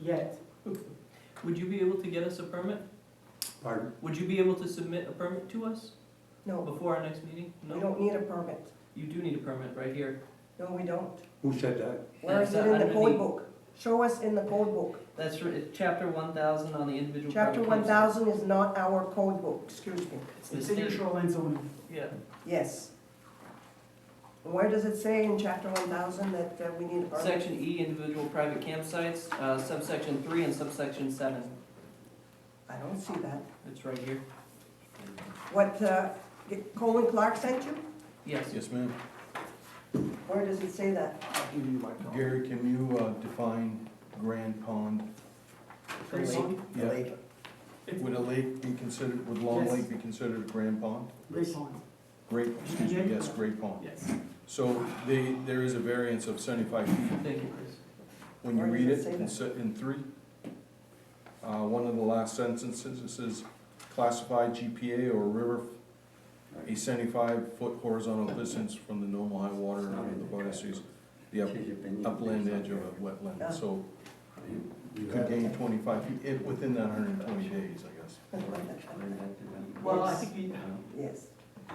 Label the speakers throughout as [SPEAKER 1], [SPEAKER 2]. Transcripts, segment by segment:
[SPEAKER 1] yet.
[SPEAKER 2] Would you be able to get us a permit?
[SPEAKER 3] Pardon?
[SPEAKER 2] Would you be able to submit a permit to us
[SPEAKER 1] No,
[SPEAKER 2] before our next meeting?
[SPEAKER 1] we
[SPEAKER 2] No?
[SPEAKER 1] don't need a permit.
[SPEAKER 2] You do need a permit right here.
[SPEAKER 1] No, we don't.
[SPEAKER 3] Who said that?
[SPEAKER 1] Where is
[SPEAKER 2] That's
[SPEAKER 1] it in the
[SPEAKER 2] under
[SPEAKER 1] code
[SPEAKER 2] the-
[SPEAKER 1] book? Show us in the code book.
[SPEAKER 2] That's ri- it's chapter one thousand on the individual.
[SPEAKER 1] Chapter
[SPEAKER 2] permit
[SPEAKER 1] one
[SPEAKER 2] claims.
[SPEAKER 1] thousand is not our code book, excuse me.
[SPEAKER 2] It's the
[SPEAKER 4] It's in your
[SPEAKER 2] state.
[SPEAKER 4] shoreline zoning.
[SPEAKER 2] Yeah,
[SPEAKER 1] Yes. Where does it say in chapter one thousand that uh, we need a permit?
[SPEAKER 2] section E, individual private campsites, uh, subsection three and subsection seven.
[SPEAKER 1] I don't see that.
[SPEAKER 2] It's right here.
[SPEAKER 1] What, uh, did Colin Clark sent you?
[SPEAKER 2] Yes,
[SPEAKER 5] Yes, ma'am.
[SPEAKER 1] Where does it say that?
[SPEAKER 4] I'll give you my copy.
[SPEAKER 5] Gary, can you uh, define Grand Pond?
[SPEAKER 2] the lake.
[SPEAKER 5] Yeah.
[SPEAKER 4] It's
[SPEAKER 5] Would a lake be considered, would Long
[SPEAKER 4] Yes.
[SPEAKER 5] Lake be considered a Grand Pond?
[SPEAKER 4] Great Pond,
[SPEAKER 5] Great, excuse me,
[SPEAKER 4] Yeah.
[SPEAKER 5] yes, Great Pond.
[SPEAKER 4] yes.
[SPEAKER 5] So they, there is a variance of seventy-five feet.
[SPEAKER 2] Thank you, Chris.
[SPEAKER 5] When you
[SPEAKER 1] Where does
[SPEAKER 5] read
[SPEAKER 1] it
[SPEAKER 5] it
[SPEAKER 1] say
[SPEAKER 5] in
[SPEAKER 1] that?
[SPEAKER 5] se- in three, uh, one of the last sentences, it says classified GPA or river a seventy-five foot horizontal distance from the normal high water and under the vortices, the up- upland edge of a
[SPEAKER 1] Yeah.
[SPEAKER 5] wetland. So you could gain twenty-five feet, if, within that hundred and twenty days, I guess.
[SPEAKER 4] Well, I
[SPEAKER 1] Yes.
[SPEAKER 4] think we,
[SPEAKER 1] Yes.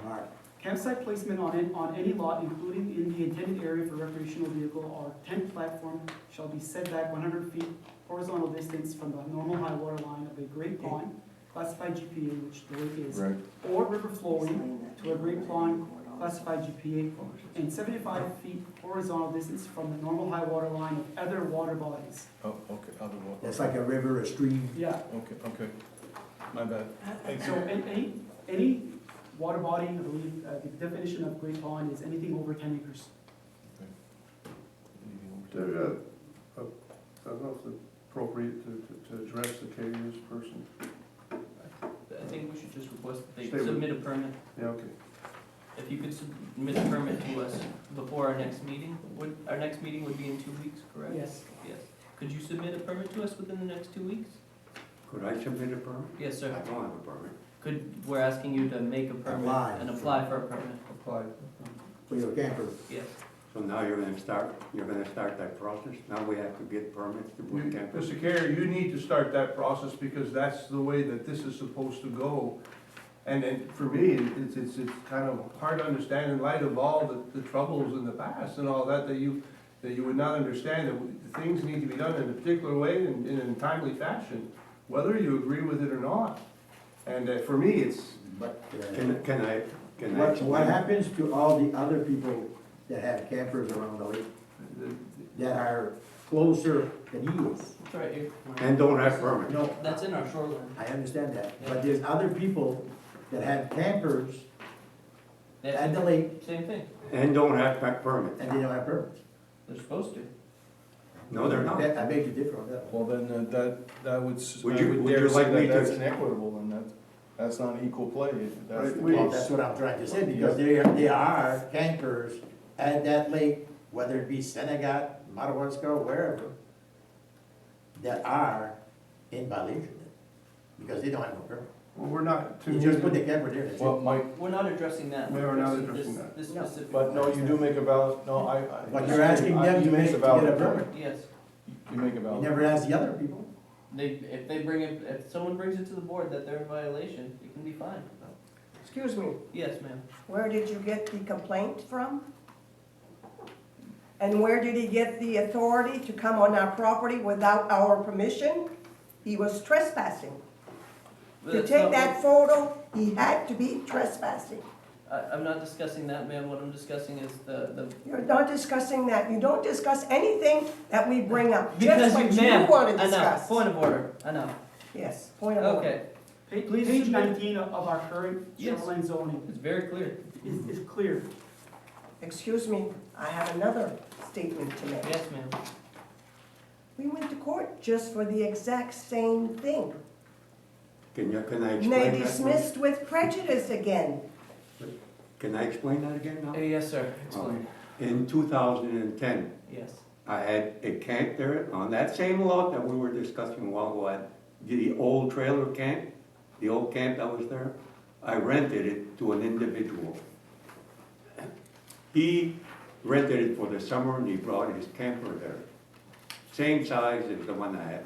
[SPEAKER 3] Mark,
[SPEAKER 4] campsite placement on it, on any lot, including in the intended area for recreational vehicle or tent platform, shall be set back one hundred feet horizontal distance from the normal high water line of a great pond, classified GPA, which the lake is,
[SPEAKER 5] Right.
[SPEAKER 4] or river flowing,
[SPEAKER 1] Sign that.
[SPEAKER 4] to a great pond, classified GPA, and seventy-five feet horizontal distance from the normal high water line of other water bodies.
[SPEAKER 5] Oh, okay, other one.
[SPEAKER 3] that's like a river, a stream.
[SPEAKER 4] Yeah,
[SPEAKER 5] Okay, okay. My bad.
[SPEAKER 4] So a- any, any water body, I believe, uh, the definition of great pond is anything over ten acres.
[SPEAKER 6] There, uh, uh, I don't know if it's appropriate to, to- to address the KU's person.
[SPEAKER 2] I think we should just request that they
[SPEAKER 6] Stay with-
[SPEAKER 2] submit a permit.
[SPEAKER 6] Yeah, okay.
[SPEAKER 2] If you could submit a permit to us before our next meeting, would, our next meeting would be in two weeks, correct?
[SPEAKER 4] Yes.
[SPEAKER 2] Yes. Could you submit a permit to us within the next two weeks?
[SPEAKER 3] Could I submit a permit?
[SPEAKER 2] Yes,
[SPEAKER 3] I
[SPEAKER 2] sir.
[SPEAKER 3] don't have a permit.
[SPEAKER 2] Could, we're asking you to make a
[SPEAKER 3] Apply.
[SPEAKER 2] permit and apply for a permit.
[SPEAKER 6] Apply.
[SPEAKER 3] For your camper.
[SPEAKER 2] Yes.
[SPEAKER 3] So now you're gonna start, you're gonna start that process? Now we have to get permits to put campers?
[SPEAKER 6] Mr. Carrier, you need to start that process because that's the way that this is supposed to go. And, and for me, it's, it's, it's kind of hard to understand in light of all the, the troubles in the past and all that, that you, that you would not understand that things need to be done in a particular way and, and in a timely fashion, whether you agree with it or not. And uh, for me, it's,
[SPEAKER 7] But uh,
[SPEAKER 3] Can, can I, can I?
[SPEAKER 7] what, what happens to all the other people that have campers around the lake
[SPEAKER 6] the-
[SPEAKER 7] that are closer than he is?
[SPEAKER 2] It's right here.
[SPEAKER 3] And don't have permit?
[SPEAKER 7] No,
[SPEAKER 2] That's in our shoreline.
[SPEAKER 7] I understand that, but there's other people that have campers at
[SPEAKER 2] That's
[SPEAKER 7] the lake
[SPEAKER 2] same thing.
[SPEAKER 3] And don't have back permit?
[SPEAKER 7] and they don't have permits.
[SPEAKER 2] They're supposed to.
[SPEAKER 3] No, they're not.
[SPEAKER 7] That- I beg to differ on that one.
[SPEAKER 5] Well, then, uh, that, that would, s- I
[SPEAKER 3] Would you-
[SPEAKER 5] would
[SPEAKER 3] would you
[SPEAKER 5] dare
[SPEAKER 3] like
[SPEAKER 5] say
[SPEAKER 3] me
[SPEAKER 5] that
[SPEAKER 3] to-
[SPEAKER 5] that's inequitable, and that's, that's not equal play, if that's
[SPEAKER 6] Right,
[SPEAKER 5] the
[SPEAKER 6] we-
[SPEAKER 7] Well,
[SPEAKER 5] case.
[SPEAKER 7] that's what I'm trying to say, because they are, they are campers at that lake, whether it be Senegat, Madawaska, or wherever, that are in violation, because they don't have no permit.
[SPEAKER 6] well, we're not, to
[SPEAKER 7] You
[SPEAKER 6] me,
[SPEAKER 7] just put the camper there, that's
[SPEAKER 5] Well,
[SPEAKER 7] it.
[SPEAKER 5] Mike,
[SPEAKER 2] We're not addressing that.
[SPEAKER 6] We are not
[SPEAKER 2] This-
[SPEAKER 6] addressing
[SPEAKER 2] this-
[SPEAKER 6] that.
[SPEAKER 2] This
[SPEAKER 1] No.
[SPEAKER 2] specific.
[SPEAKER 5] but no, you do make a valid, no, I, I.
[SPEAKER 7] But you're asking them
[SPEAKER 5] You
[SPEAKER 7] to
[SPEAKER 5] make
[SPEAKER 7] make,
[SPEAKER 5] a
[SPEAKER 7] to get
[SPEAKER 5] valid
[SPEAKER 7] a
[SPEAKER 5] point.
[SPEAKER 7] permit.
[SPEAKER 2] Yes.
[SPEAKER 5] You make a
[SPEAKER 7] You
[SPEAKER 5] valid,
[SPEAKER 7] never ask the other people.
[SPEAKER 2] They, if they bring it, if someone brings it to the board that they're in violation, it can be fined.
[SPEAKER 1] Excuse me,
[SPEAKER 2] Yes, ma'am.
[SPEAKER 1] where did you get the complaint from? And where did he get the authority to come on our property without our permission? He was trespassing. To
[SPEAKER 2] That's
[SPEAKER 1] take
[SPEAKER 2] not
[SPEAKER 1] that photo, he had to be trespassing.
[SPEAKER 2] what- I, I'm not discussing that, ma'am. What I'm discussing is the, the
[SPEAKER 1] You're not discussing that. You don't discuss anything that we bring up.
[SPEAKER 2] Because
[SPEAKER 1] Just
[SPEAKER 2] you,
[SPEAKER 1] what
[SPEAKER 2] ma'am,
[SPEAKER 1] you want to
[SPEAKER 2] enough,
[SPEAKER 1] discuss.
[SPEAKER 2] point of order, enough,
[SPEAKER 1] Yes, point of order.
[SPEAKER 2] okay,
[SPEAKER 4] Page,
[SPEAKER 2] Please
[SPEAKER 4] page
[SPEAKER 2] submit-
[SPEAKER 4] nineteen of of our current
[SPEAKER 2] Yes.
[SPEAKER 4] shoreline zoning
[SPEAKER 2] it's very clear,
[SPEAKER 4] is, is clear.
[SPEAKER 1] Excuse me, I have another statement to make.
[SPEAKER 2] yes, ma'am,
[SPEAKER 1] We went to court just for the exact same thing.
[SPEAKER 3] Can you, can I
[SPEAKER 1] And
[SPEAKER 3] explain
[SPEAKER 1] they
[SPEAKER 3] that?
[SPEAKER 1] dismissed with prejudice again.
[SPEAKER 3] Can I explain that again
[SPEAKER 2] Uh,
[SPEAKER 3] now?
[SPEAKER 2] yes, sir, explain,
[SPEAKER 3] In two thousand and ten,
[SPEAKER 2] yes,
[SPEAKER 3] I had a camp there on that same lot that we were discussing a while ago, I- the old trailer camp, the old camp that was there, I rented it to an individual. He rented it for the summer and he brought his camper there, same size as the one I had.